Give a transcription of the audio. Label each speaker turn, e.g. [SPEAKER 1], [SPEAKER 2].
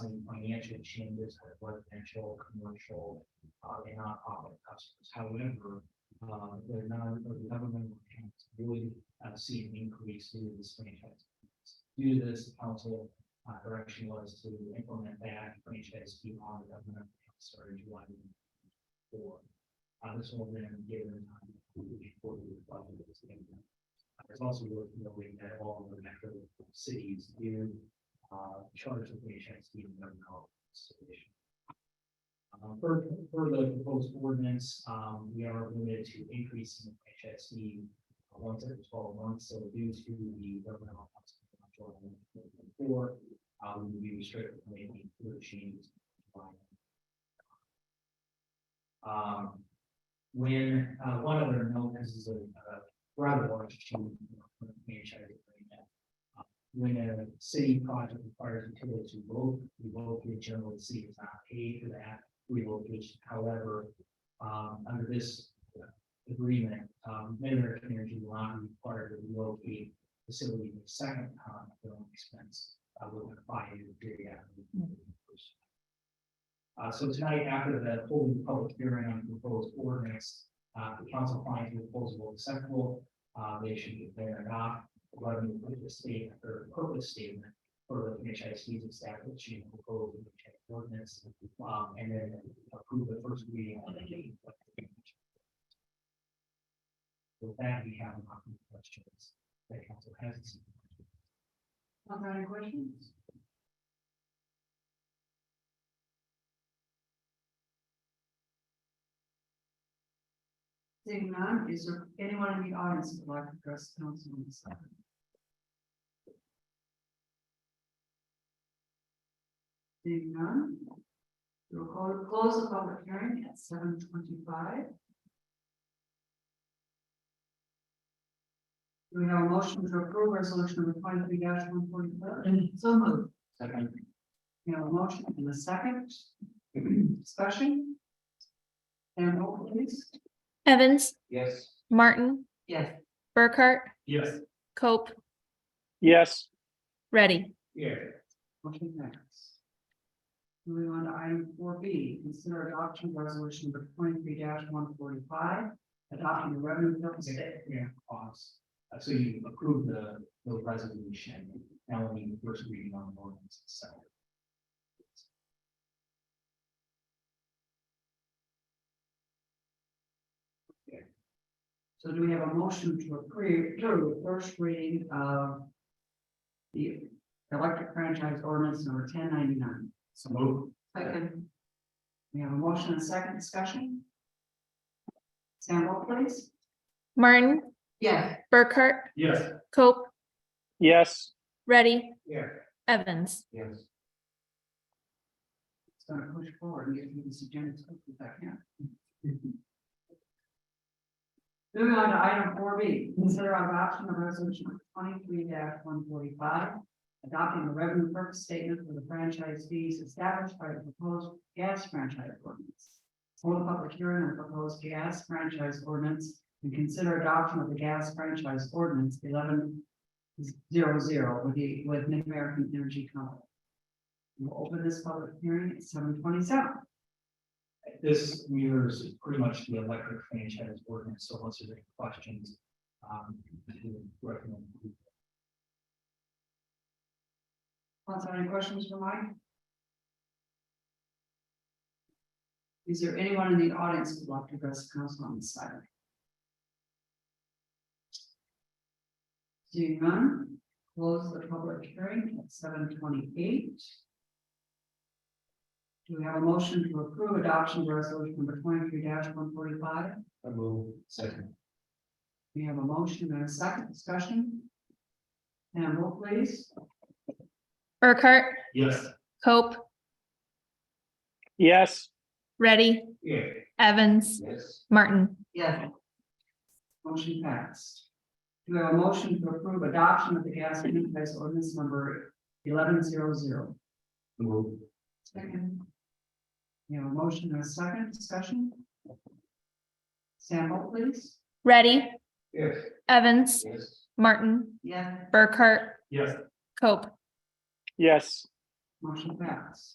[SPEAKER 1] potentially changes with residential, commercial, uh, and nonprofit customers. However, uh, the non, or the government can really, uh, see an increase due to this franchise. Due to this, council, uh, direction was to implement that franchise fee on the government, started July four. Uh, this will then give them time to report to the budget of this thing. Uh, It's also worth noting that all of the metro cities do uh, charge the franchise fee in their consolidation. Uh, per, per the proposed ordinance, um, we are limited to increasing the franchise fee uh, once every twelve months, so due to the governmental cost of control in 2024, um, we restrict maybe through changes. Um, when, uh, one other note, this is a, a rather large change from the franchise agreement. Uh, When a city project requires utilities to vote, we vote, the general city is not paid for that relocation. However, um, under this agreement, um, Mid-American Energy will not require to relocate facility the second time at their own expense, uh, within a five-year period after the first. Uh, so tonight, after the holding public hearing on the proposed ordinance, uh, the council finds the proposal acceptable. Uh, they should declare it not, revenue for the state or purpose statement for the franchise fees establishing the proposed franchise ordinance. Um, and then approve the first reading on the date. of the franchise. With that, we have a couple of questions that council has.
[SPEAKER 2] Other any questions? Seeing none, is there anyone in the audience who would like to address council on this item? Seeing none. We'll call, close the public hearing at seven twenty-five. Do we have a motion to approve resolution number twenty-three one forty-four? So moved.
[SPEAKER 1] Second.
[SPEAKER 2] We have a motion and a second. Discussion. And roll please.
[SPEAKER 3] Evans,
[SPEAKER 1] Yes.
[SPEAKER 3] Martin,
[SPEAKER 2] Yes.
[SPEAKER 3] Burkhart,
[SPEAKER 1] Yes.
[SPEAKER 3] Cope,
[SPEAKER 4] yes,
[SPEAKER 3] Ready.
[SPEAKER 1] Yeah.
[SPEAKER 2] Motion carries. Moving on to item four B, consider adoption of resolution number twenty-three one forty-five, adopting the revenue purpose statement.
[SPEAKER 1] Yeah, pause. Uh, So you approve the, the resolution, now we need the first reading on the ordinance itself.
[SPEAKER 2] So do we have a motion to approve, to the first reading of the electric franchise ordinance number ten ninety-nine?
[SPEAKER 1] So move.
[SPEAKER 2] Second. We have a motion and second discussion. Sam, roll please.
[SPEAKER 3] Martin,
[SPEAKER 2] Yes.
[SPEAKER 3] Burkhart,
[SPEAKER 1] Yes.
[SPEAKER 3] Cope,
[SPEAKER 4] yes,
[SPEAKER 3] Ready,
[SPEAKER 1] Yeah.
[SPEAKER 3] Evans.
[SPEAKER 1] Yes.
[SPEAKER 2] It's gonna push forward and get through this agenda as quickly as I can. Moving on to item four B, consider adoption of resolution twenty-three one forty-five. Adopting the revenue purpose statement for the franchise fees established by the proposed gas franchise ordinance. Hold a public hearing on proposed gas franchise ordinance and consider adoption of the gas franchise ordinance eleven zero zero with the, with Mid-American Energy Company. We'll open this public hearing at seven twenty-seven.
[SPEAKER 1] This mirrors pretty much the electric franchise ordinance, so once there's any questions, um, I would recommend.
[SPEAKER 2] Council, any questions for Mike? Is there anyone in the audience who'd like to address the council on this item? Seeing none, close the public hearing at seven twenty-eight. Do we have a motion to approve adoption of resolution number twenty-three one forty-five?
[SPEAKER 1] I move. Second.
[SPEAKER 2] We have a motion and a second discussion. And roll please.
[SPEAKER 3] Burkhart,
[SPEAKER 1] Yes.
[SPEAKER 3] Cope,
[SPEAKER 4] yes,
[SPEAKER 3] Ready,
[SPEAKER 1] Yeah.
[SPEAKER 3] Evans,
[SPEAKER 1] Yes.
[SPEAKER 3] Martin.
[SPEAKER 2] Yes. Motion passed. Do we have a motion to approve adoption of the gas unit price ordinance number eleven zero zero?
[SPEAKER 1] Move.
[SPEAKER 2] Second. You have a motion and a second discussion? Sample, please.
[SPEAKER 3] Ready,
[SPEAKER 1] Yes.
[SPEAKER 3] Evans,
[SPEAKER 1] Yes.
[SPEAKER 3] Martin,
[SPEAKER 2] Yes.
[SPEAKER 3] Burkhart,
[SPEAKER 1] Yes.
[SPEAKER 3] Cope.
[SPEAKER 4] yes,
[SPEAKER 2] Motion passed.